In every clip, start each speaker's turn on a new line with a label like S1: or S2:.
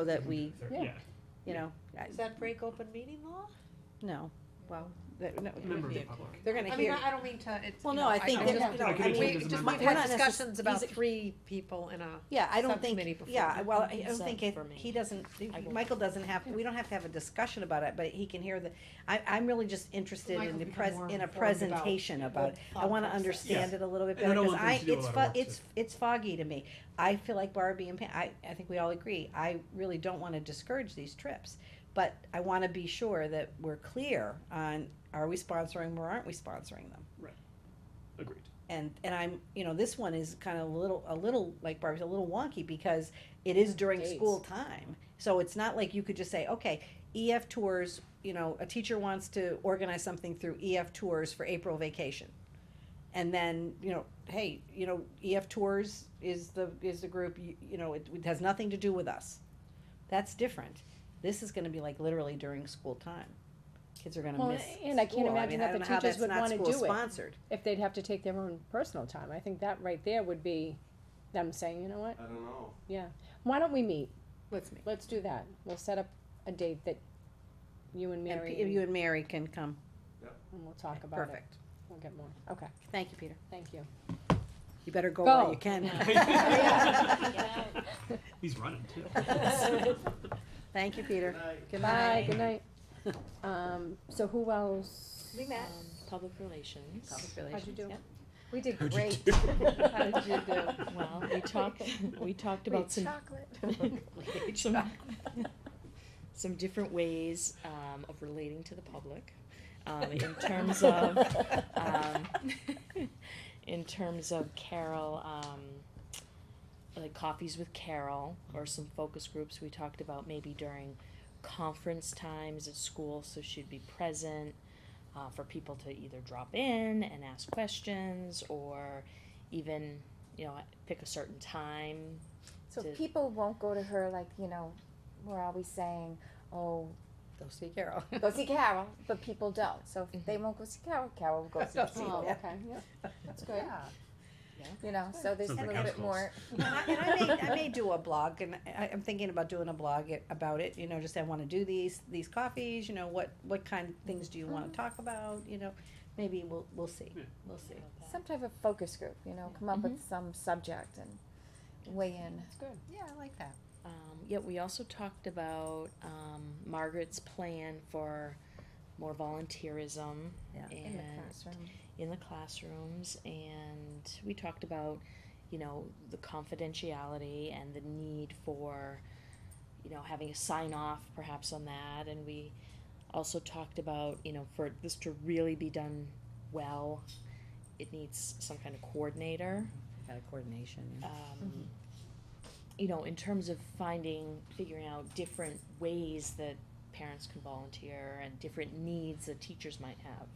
S1: so that we,
S2: Yeah.
S3: Yeah.
S1: you know, I-
S4: Does that break open meeting law?
S1: no, well, that, no,
S3: Member of
S2: be
S3: the
S2: a
S3: public.
S1: they're gonna
S4: I mean,
S1: hear.
S4: I I don't mean to, it's.
S1: Well,
S4: you
S1: no,
S4: know,
S1: I think
S4: I'm
S1: that-
S4: just-
S1: you know,
S3: Like,
S1: I mean,
S3: it is
S4: We,
S3: a
S4: just,
S3: member.
S4: we've
S1: We're
S4: had
S1: not necess-
S4: discussions about
S1: these are-
S4: three people in a,
S1: Yeah, I don't
S4: Subcommittee
S1: think,
S4: before.
S1: yeah, well, I- I don't
S4: Consent
S1: think, it-
S4: for me.
S1: he doesn't,
S4: I will.
S1: Michael doesn't have, we don't have to have a discussion about it, but he can hear the, I, I'm really just interested in
S4: Michael's
S1: the
S4: become
S1: pres,
S4: more
S1: in a
S4: informed about
S1: presentation about it. I wanna
S4: thought process.
S1: understand
S3: Yes.
S1: it a little bit
S3: And I
S1: better,
S3: don't
S1: cause
S3: want them
S1: I,
S3: to do a
S1: it's
S3: lot of
S1: fo-
S3: work,
S1: it's, it's foggy to me. I feel like Barbie and Pam, I, I think we all agree, I really don't wanna discourage these trips, but I wanna be sure that we're clear on, are we sponsoring them or aren't we sponsoring them?
S3: Agreed.
S1: and and I'm you know this one is kind of a little a little like Barbie's a little wonky because it is during
S4: Days.
S1: school time, so it's not like you could just say okay EF tours you know a teacher wants to organize something through EF tours for April vacation, and then you know hey you know EF tours is the is the group you, you know it, it has nothing to do with us, that's different. This is going to be like literally during school time. Kids are going to
S2: Well,
S1: miss.
S2: and I can't
S1: school.
S2: imagine
S1: mean,
S2: that
S1: I
S2: the
S1: don't know how
S2: teachers
S1: that's
S2: would
S1: not
S2: wanna do it.
S1: Sponsored.
S2: If they'd have to take their own personal time, I think that right there would be them saying, you know what,
S5: I don't know.
S2: why don't we meet?
S1: Let's make.
S2: Let's do that. We'll set up a date that you and
S1: And
S2: Mary,
S1: P- you and Mary can come.
S2: and we'll talk about it.
S1: Perfect.
S2: We'll get more. Okay,
S1: Thank you, Peter.
S2: thank you.
S1: You better go
S2: Go.
S1: while you can.
S3: He's running too.
S1: Thank you, Peter.
S5: Good night.
S1: Good
S2: Bye,
S1: night.
S2: good night. Um, so who else?
S4: We met.
S6: Public relations.
S1: Public
S2: How'd
S1: relations,
S2: you do?
S1: yeah.
S2: We did
S3: How'd you
S2: great.
S3: do?
S2: How did you do?
S6: Well, we talked, we talked about some, some, some different ways, um, of relating to the public, um, in terms of, um, in terms of Carol, um, like coffees with Carol or some focus groups we talked about maybe during conference times at school, so she'd be present uh, for people to either drop in and ask questions or even, you know, pick a certain time.
S7: So
S6: to-
S7: people won't go to her like, you know, we're always saying, oh,
S1: Go see Carol.
S7: go see Carol, but people don't. So if they won't go see Carol, Carol will go see people.
S2: Oh, okay, yeah,
S7: That's good. You know, so there's a
S3: Sounds like
S7: little bit
S3: households.
S7: more.
S1: And I, and I may, I may do a blog, and I, I'm thinking about doing a blog i- about it, you know, just I wanna do these, these coffees, you know, what, what kind of things do you wanna talk about, you know? Maybe we'll, we'll see,
S3: Yeah.
S1: we'll see.
S7: Some type of focus group, you know, come up with some subject and weigh in.
S2: that's good.
S4: Yeah, I like that.
S6: Um, yeah, we also talked about um, Margaret's plan for more volunteerism
S1: Yeah.
S6: and
S7: In the classroom.
S6: in the classrooms and we talked about you know the confidentiality and the need for you know having a sign off perhaps on that and we also talked about you know for this to really be done well it needs some kind of coordinator
S1: Kind of coordination, yeah.
S6: um, you know, in terms of finding, figuring out different ways that parents can volunteer and different needs that teachers might have.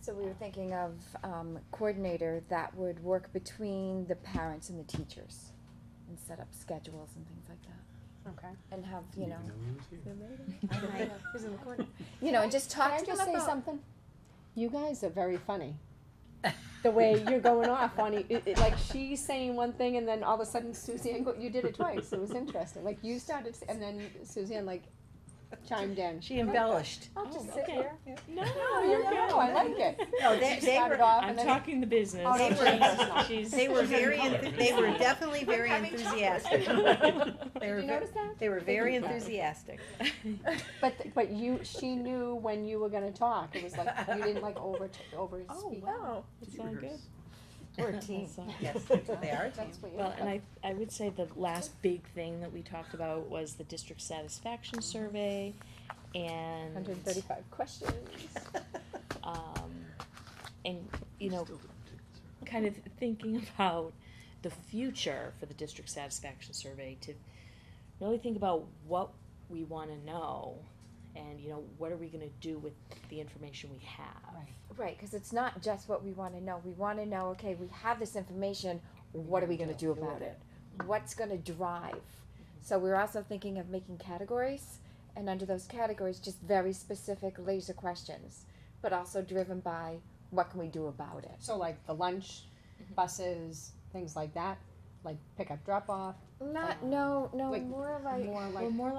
S7: So we were thinking of um, coordinator that would work between the parents and the teachers and set up schedules and things like that.
S2: Okay.
S7: And have, you know,
S1: I know.
S4: Who's in the corner?
S7: you know, and just
S2: Can
S7: talk
S2: I
S7: to them
S2: just say
S7: about-
S2: something? You guys are very funny. The way you're going off on e, it, it- like she's saying one thing and then all of a sudden Suzanne, go- you did it twice. It was interesting. Like you started s- and then Suzanne like chimed in.
S1: She embellished.
S2: I'll
S6: Oh,
S2: just sit
S6: okay.
S2: here.
S6: No,
S2: No, you're good. I like it.
S1: No, they,
S2: She
S1: they
S2: started
S1: were,
S2: off
S6: I'm
S2: and then-
S6: talking the business.
S2: Oh,
S1: they
S2: were-
S6: She's-
S1: they were
S6: she's in
S1: very,
S3: color.
S1: enthu- they were definitely very
S4: having
S1: enthusiastic. They
S2: Did
S1: were,
S2: you
S1: ve-
S2: notice that?
S1: they were very
S2: Thank you.
S1: enthusiastic.
S2: Oh, But, th- but you, she knew when you were gonna talk. It was like, you didn't like over, over speak.
S6: Oh, wow. It's all good.
S7: We're a team.
S6: That's all-
S1: Yes, they are a team.
S2: That's what you.
S6: Well, and I, I would say the last big thing that we talked about was the district satisfaction survey and.
S2: Hundred and thirty-five questions.
S6: um, and you know kind of thinking about the future for the district satisfaction survey to really think about what we want to know and you know what are we going to do with the information we have
S2: Right.
S7: Right, because it's not just what we want to know. We want to know, okay, we have this information. What are we going to do about it? What's going to drive? So we're also thinking of making categories, and under those categories, just very specific laser questions, but also driven by what can we do about it?
S2: So like the lunch, buses, things like that,
S7: like pick up, drop off?
S2: Not, no, no,
S7: Like,
S2: more like.
S7: More Um, like
S8: Well, more